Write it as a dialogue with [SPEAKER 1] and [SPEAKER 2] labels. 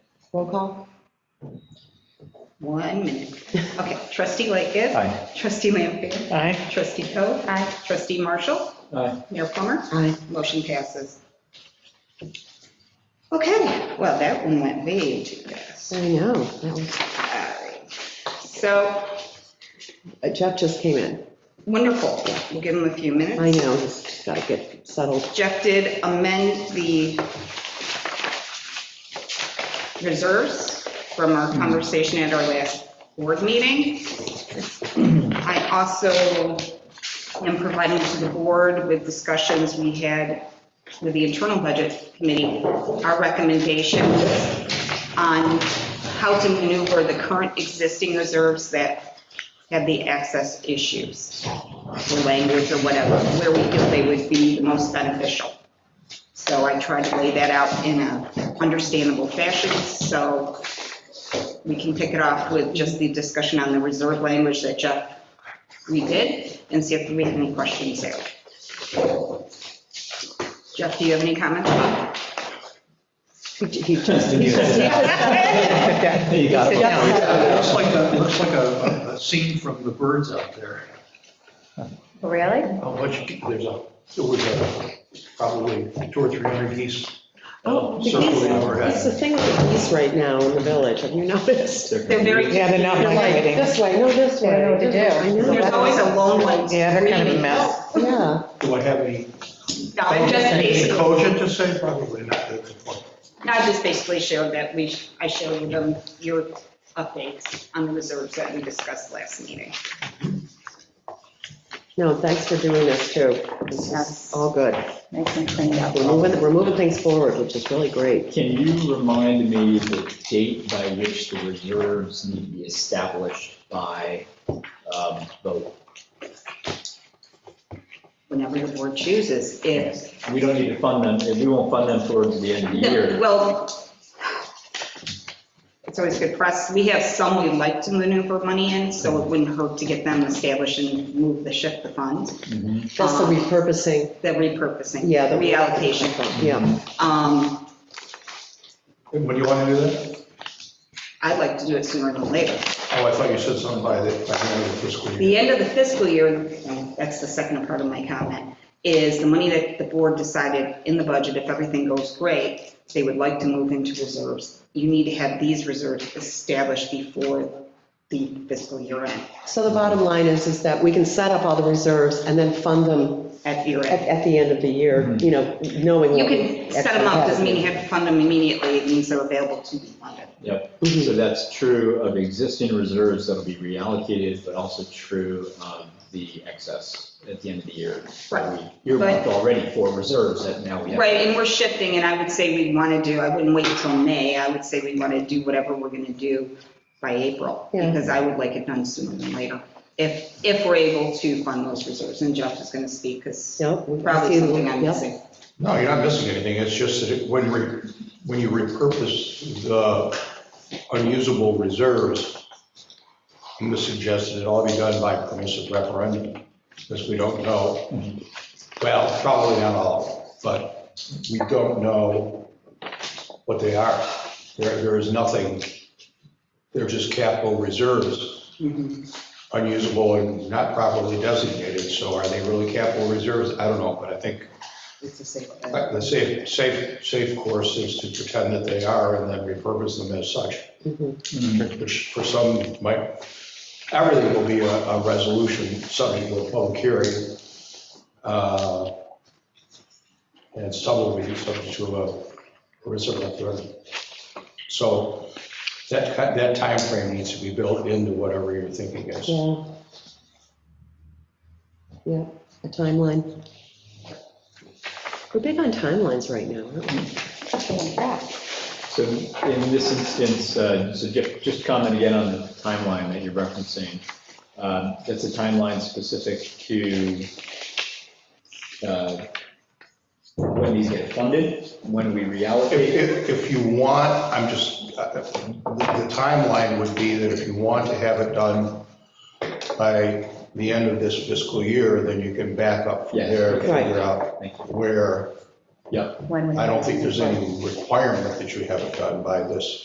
[SPEAKER 1] Roll call?
[SPEAKER 2] One minute. Okay, trustee Lightgev.
[SPEAKER 3] Aye.
[SPEAKER 2] Trustee Lampier.
[SPEAKER 3] Aye.
[SPEAKER 2] Trustee Coe. Aye. Trustee Marshall.
[SPEAKER 3] Aye.
[SPEAKER 2] Mayor Plummer.
[SPEAKER 1] Aye.
[SPEAKER 2] Motion passes. Okay, well, that one went way too fast.
[SPEAKER 1] I know. that was-
[SPEAKER 2] All right. So,
[SPEAKER 1] uh, Jeff just came in.
[SPEAKER 2] wonderful. We'll give him a few minutes.
[SPEAKER 1] I know, he's got to get settled.
[SPEAKER 2] Jeff did amend the reserves from our conversation at our last board meeting. I also am providing to the board with discussions we had with the internal budget committee, our recommendations on how to maneuver the current existing reserves that have the access issues or language or whatever, where we feel they would be the most beneficial. So I tried to lay that out in a understandable fashion, so we can pick it off with just the discussion on the reserve language that Jeff redid, and see if we have any questions there. Jeff, do you have any comments?
[SPEAKER 1] He j- he just, he just- he just-
[SPEAKER 3] You got it.
[SPEAKER 4] It looks like, a- it looks like a, a- a scene from the birds out there.
[SPEAKER 5] Really?
[SPEAKER 4] How much, ge- there's a, there was a, probably two or three hundred geese
[SPEAKER 1] Oh,
[SPEAKER 4] uh,
[SPEAKER 1] the geese.
[SPEAKER 4] circling
[SPEAKER 1] It's the
[SPEAKER 4] overhead.
[SPEAKER 1] thing with the geese right now in the village, have you noticed?
[SPEAKER 2] They're very.
[SPEAKER 6] Yeah, they're not
[SPEAKER 1] They're like,
[SPEAKER 6] migrating.
[SPEAKER 1] this way, no, this way.
[SPEAKER 5] They don't know what to
[SPEAKER 1] this way. I
[SPEAKER 5] do.
[SPEAKER 1] know.
[SPEAKER 2] There's always a lone one.
[SPEAKER 6] Yeah, they're kind of a
[SPEAKER 2] screaming.
[SPEAKER 6] mess.
[SPEAKER 1] Yeah,
[SPEAKER 4] Do I have any,
[SPEAKER 2] No, I'm just
[SPEAKER 4] anything
[SPEAKER 2] basically,
[SPEAKER 4] cogent to say? Probably not, that's the point.
[SPEAKER 2] I just basically showed that we, I showed you them, your updates on the reserves that we discussed last meeting.
[SPEAKER 1] no, thanks for doing this too. This is
[SPEAKER 5] Yes.
[SPEAKER 1] all good.
[SPEAKER 5] Nice and cleaned up.
[SPEAKER 1] We're moving, we're moving things forward, which is really great.
[SPEAKER 3] Can you remind me the date by which the reserves need to be established by um, vote?
[SPEAKER 2] Whenever the board chooses, if,
[SPEAKER 3] We don't need to fund them, we won't fund them towards the end of the year.
[SPEAKER 2] well, it's always good press. We have some we like to maneuver money in, so it wouldn't hurt to get them established and move the shift the funds,
[SPEAKER 3] Mhm.
[SPEAKER 1] That's the repurposing,
[SPEAKER 2] the repurposing,
[SPEAKER 1] yeah. the-
[SPEAKER 2] reallocation.
[SPEAKER 1] Yeah,
[SPEAKER 2] Um,
[SPEAKER 4] And When do you want to do that?
[SPEAKER 2] I'd like to do it sooner than later.
[SPEAKER 4] Oh, I thought you said something by the, by the end of the fiscal year.
[SPEAKER 2] The end of the fiscal year, that's the second part of my comment, is the money that the board decided in the budget, if everything goes great, they would like to move into reserves. You need to have these reserves established before the fiscal year end,
[SPEAKER 1] so the bottom line is, is that we can set up all the reserves and then fund them
[SPEAKER 2] at year
[SPEAKER 1] at,
[SPEAKER 2] end.
[SPEAKER 1] at the end of the year, you know, knowing.
[SPEAKER 2] You
[SPEAKER 1] what
[SPEAKER 2] can
[SPEAKER 1] we
[SPEAKER 2] set them up, doesn't mean you
[SPEAKER 1] actually
[SPEAKER 2] have to fund them immediately, it means they're available to be funded.
[SPEAKER 3] Yep,
[SPEAKER 1] Mhm.
[SPEAKER 3] so that's true of existing reserves that'll be reallocated, but also true of the excess at the end of the year.
[SPEAKER 2] Right.
[SPEAKER 3] You're already for reserves that now we have.
[SPEAKER 2] Right, and we're shifting, and I would say we want to do, I wouldn't wait until May, I would say we want to do whatever we're going to do by April,
[SPEAKER 1] Yeah.
[SPEAKER 2] because I would like it done sooner than later, if, if we're able to fund those reserves, and Jeff is going to speak, because
[SPEAKER 1] Yep. we-
[SPEAKER 2] probably something I'm
[SPEAKER 1] yep.
[SPEAKER 2] missing.
[SPEAKER 4] No, you're not missing anything, it's just that it- when, re- when you repurpose the unusable reserves, I'm going to suggest that it all be done by permissive referendum, because we don't know, well, probably not all, but we don't know what they are. There, there is nothing, they're just capital reserves,
[SPEAKER 2] Mhm.
[SPEAKER 4] unusable and not properly designated, so are they really capital reserves? I don't know, but I think
[SPEAKER 2] It's a safe bet.
[SPEAKER 4] the safe, safe, safe course is to pretend that they are and then repurpose them as such,
[SPEAKER 1] Mhm.
[SPEAKER 4] which for some might, everything will be a, a resolution subject to a public hearing. uh, And some will be subject to a reserve referendum. So that, ki- that timeframe needs to be built into whatever you're thinking is.
[SPEAKER 1] Yeah. Yeah, a timeline. We're big on timelines right now, aren't we?
[SPEAKER 3] So in this instance, uh, so just, just comment again on the timeline that you're referencing. Um, That's a timeline specific to uh, when these get funded, when we
[SPEAKER 4] If,
[SPEAKER 3] reallocate.
[SPEAKER 4] if, if you want, I'm just, uh, the timeline would be that if you want to have it done by the end of this fiscal year, then you can back up from
[SPEAKER 3] Yes,
[SPEAKER 4] there,
[SPEAKER 3] okay.
[SPEAKER 4] figure out
[SPEAKER 3] Thank you.
[SPEAKER 4] where,
[SPEAKER 3] Yep,
[SPEAKER 5] When we-
[SPEAKER 4] I don't think there's any requirement that you have it done by this